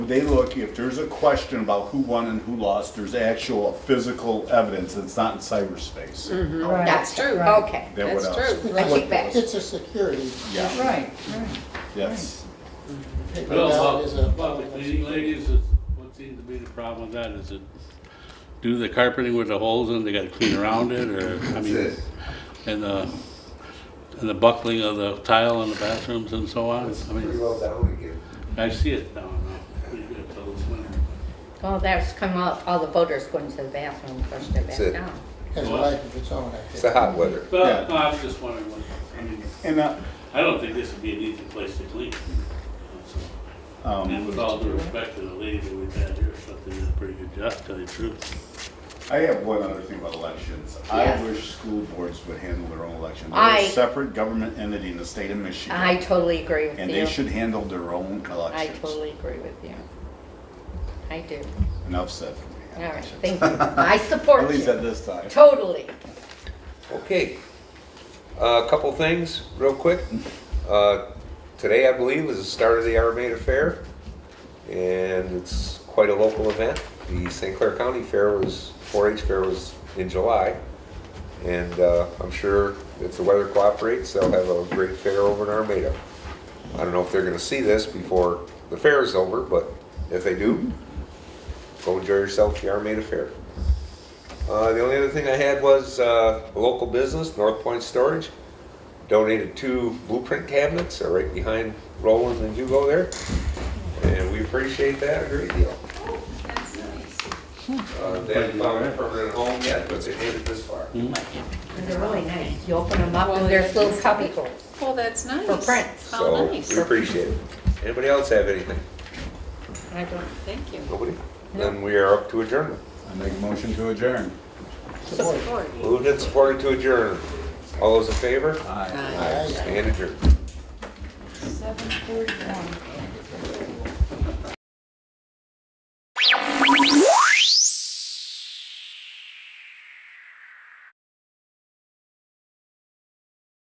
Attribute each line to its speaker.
Speaker 1: they look, if there's a question about who won and who lost, there's actual physical evidence, it's not in cyberspace.
Speaker 2: Right,
Speaker 3: That's true,
Speaker 2: right.
Speaker 3: okay,
Speaker 1: That would
Speaker 3: that's
Speaker 1: us-
Speaker 3: true. I
Speaker 1: would
Speaker 3: take back.
Speaker 1: us-
Speaker 4: It's a security.
Speaker 1: Yeah,
Speaker 2: Right, right.
Speaker 1: yes.
Speaker 4: Paper ballot is a-
Speaker 5: Well, public meeting, ladies, is- what seems to be the problem with that is it, do the carpeting with the holes in, they gotta clean around it, or, I mean, and the, and the buckling of the tile in the bathrooms and so on, I
Speaker 6: Pretty
Speaker 5: mean,
Speaker 6: well down again.
Speaker 5: I see it now, no, you get those,
Speaker 3: Well, that's come out, all the voters going to the bathroom, and flushed it back
Speaker 7: That's it.
Speaker 3: down.
Speaker 4: Has a life of its own, I
Speaker 7: It's the
Speaker 4: think.
Speaker 7: hot weather.
Speaker 1: Yeah.
Speaker 5: But, no, I was just wondering, what- I mean,
Speaker 1: And, uh,
Speaker 5: I don't think this would be an easy place to clean. So, And with
Speaker 1: um,
Speaker 5: all due respect to the lady that we've had here, something did a pretty good job, to tell you the truth.
Speaker 1: I have one other thing about elections. I
Speaker 3: Yes.
Speaker 1: wish school boards would handle their own election.
Speaker 3: I-
Speaker 1: They're a separate government entity in the state of Michigan.
Speaker 3: I totally agree with you.
Speaker 1: And they should handle their own
Speaker 3: I
Speaker 1: elections.
Speaker 3: totally agree with you. I do.
Speaker 1: Enough said for me.
Speaker 3: All right, thank you. I support
Speaker 1: At least at
Speaker 3: you.
Speaker 1: this time.
Speaker 3: Totally.
Speaker 7: Okay, Uh, a couple things, real quick. Uh, Today, I believe, is the start of the Armada Fair, and it's quite a local event. The St. Clair County Fair was, 4-H Fair was in July, and uh, I'm sure if the weather cooperates, they'll have a great fair over in Armada. I don't know if they're gonna see this before the fair is over, but if they do, go enjoy yourself at the Armada Fair. Uh, the only other thing I had was uh, a local business, North Point Storage, donated two blueprint cabinets, they're right behind Roland and Hugo there, and we appreciate that a great deal. Uh, They haven't found a permanent home yet, but they made it this far.
Speaker 3: They're really nice. You open them up and there's little cubby holes.
Speaker 2: Well, that's nice.
Speaker 3: For prints.
Speaker 2: How
Speaker 7: So we
Speaker 2: nice.
Speaker 7: appreciate it. Anybody else have anything?
Speaker 3: I don't
Speaker 2: Thank you.
Speaker 7: Nobody? Then we are up to adjournment.
Speaker 1: I make a motion to adjourn.
Speaker 4: Support.
Speaker 2: Support.
Speaker 7: Moved and supported to adjourn. All those in favor?
Speaker 1: Aye.
Speaker 7: Aye. Stand adjourned.
Speaker 2: Seven forty-one.